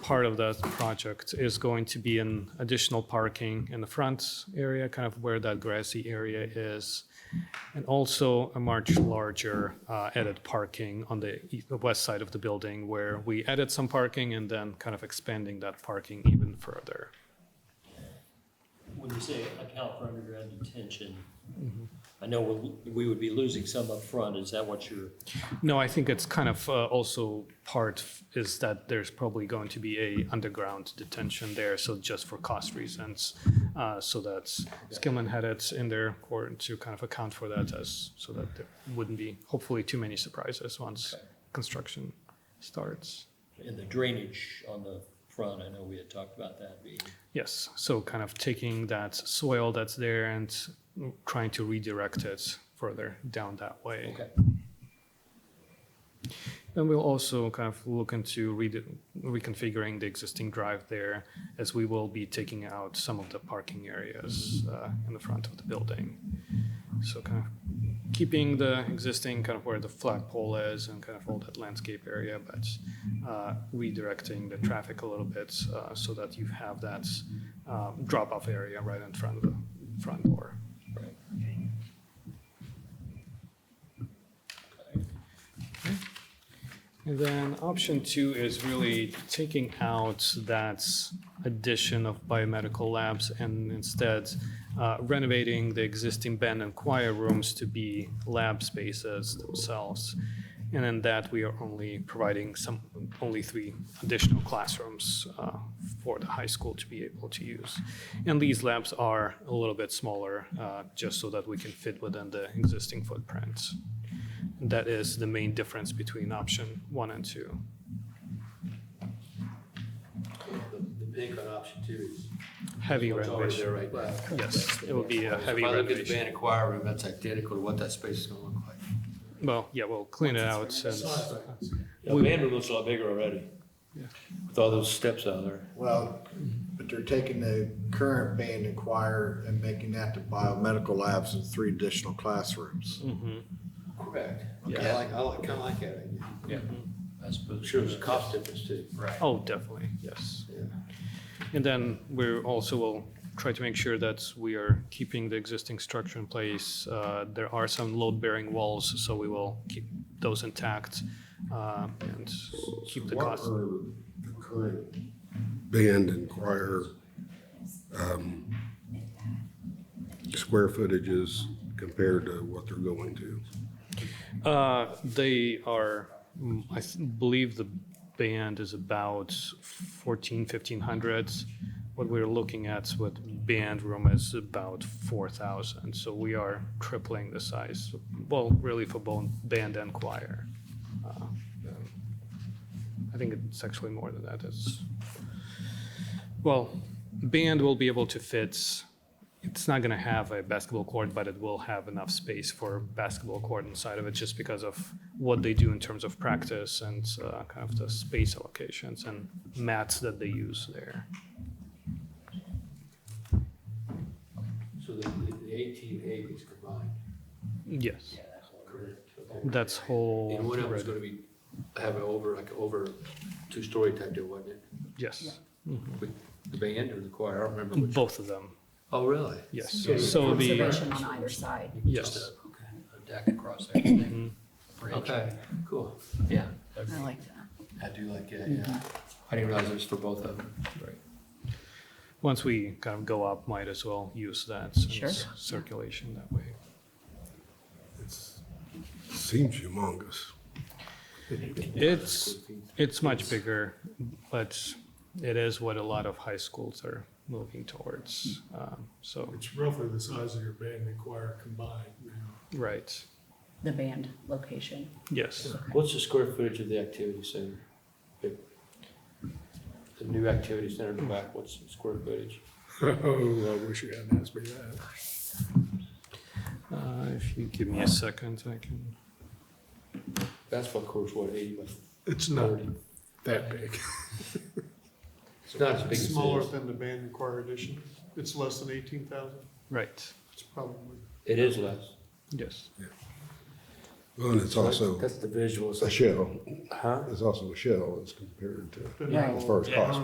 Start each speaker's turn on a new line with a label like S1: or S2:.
S1: part of that project is going to be an additional parking in the front area, kind of where that grassy area is, and also a much larger uh, added parking on the e- the west side of the building where we added some parking and then kind of expanding that parking even further.
S2: When you say account for underground detention, I know we- we would be losing some up front. is that what you're,
S1: No, I think it's kind of uh, also part f- is that there's probably going to be a underground detention there, so just for cost reasons. Uh, So that's, Skillman had it in their court to kind of account for that as, so that there wouldn't be hopefully too many surprises once construction starts.
S2: in the drainage on the front, I know we had talked about that being,
S1: Yes, so kind of taking that soil that's there and trying to redirect it further down that way.
S2: okay.
S1: And we'll also kind of look into rede- reconfiguring the existing drive there as we will be taking out some of the parking areas uh, in the front of the building. So kind of keeping the existing kind of where the flagpole is and kind of all that landscape area, but uh, redirecting the traffic a little bit uh, so that you have that um, drop-off area right in front of the front door.
S2: Right.
S1: And then option two is really taking out that addition of biomedical labs and instead uh, renovating the existing band and choir rooms to be lab spaces themselves. And in that, we are only providing some, only three additional classrooms uh, for the high school to be able to use. And these labs are a little bit smaller, uh, just so that we can fit within the existing footprints. That is the main difference between option one and two.
S3: The the big on option two is.
S1: Heavy
S3: what's already
S1: renovation.
S3: there right now.
S1: Yes, it will be a heavy
S3: If I look at the band
S1: renovation.
S3: and choir room, that's identical to what that space is gonna look like.
S1: Well, yeah, we'll clean it out and,
S4: Yeah, the band room looks a lot bigger already. With all those steps out there.
S5: Well, but they're taking the current band and choir and making that to biomedical labs and three additional classrooms.
S1: Mm-hmm,
S3: Correct. Okay,
S2: Yeah.
S3: I like, I like, kinda like that idea. Mm-hmm.
S2: I
S3: I'm
S2: suppose.
S3: sure there's a cost difference too.
S2: Right.
S1: oh, definitely, yes.
S3: Yeah.
S1: And then we also will try to make sure that we are keeping the existing structure in place. Uh, There are some load-bearing walls, so we will keep those intact uh, and keep the
S6: What
S1: cost.
S6: are the current band and choir um, square footages compared to what they're going to?
S1: Uh, they are, mm, I th- believe the band is about 14, 1500. What we're looking at with band room is about 4,000. So we are tripling the size, well, really for both band and choir. Uh, I think it's actually more than that. It's, well, band will be able to fit it's not going to have a basketball court, but it will have enough space for basketball court inside of it just because of what they do in terms of practice and uh, kind of the space allocations and mats that they use there.
S3: So the, the the eighteen A is combined.
S1: Yes,
S3: Correct.
S1: that's whole.
S3: And one of them's gonna be, have an over, like over two-story type deal, wasn't it?
S1: Yes,
S3: With the band or the choir, I don't remember which.
S1: both of them.
S3: Oh, really?
S1: Yes.
S3: So it's
S1: So the
S7: Observation on either side.
S1: Yes.
S3: Just a-
S2: Okay, a deck across everything.
S3: Okay, cool.
S2: Yeah.
S7: I like that.
S3: I do like that, yeah. I didn't realize it was for both of them. Right.
S1: once we kind of go up, might as well use that since
S7: Sure.
S1: circulation that way.
S6: Seems humongous.
S1: It's it's much bigger, but it is what a lot of high schools are moving towards. Um, so
S8: It's roughly the size of your band and choir combined now.
S1: right,
S7: The band location.
S1: yes.
S4: What's the square footage of the activity center? The the new activity center in the back, what's the square footage?
S8: Oh, I wish you hadn't asked me that.
S1: Uh, If you give me a second, I can.
S4: Basketball court's what, eighty by
S8: It's not
S4: thirty?
S8: that big.
S3: It's not as big as it
S8: Smaller
S3: is.
S8: than the band and choir edition. It's less than eighteen thousand.
S1: Right.
S8: It's probably.
S4: It is less.
S1: Yes.
S6: Well, and it's also
S4: That's the visual.
S6: a shell.
S4: Huh?
S6: It's also a shell as compared to
S8: but
S7: Right.
S6: as far as cost.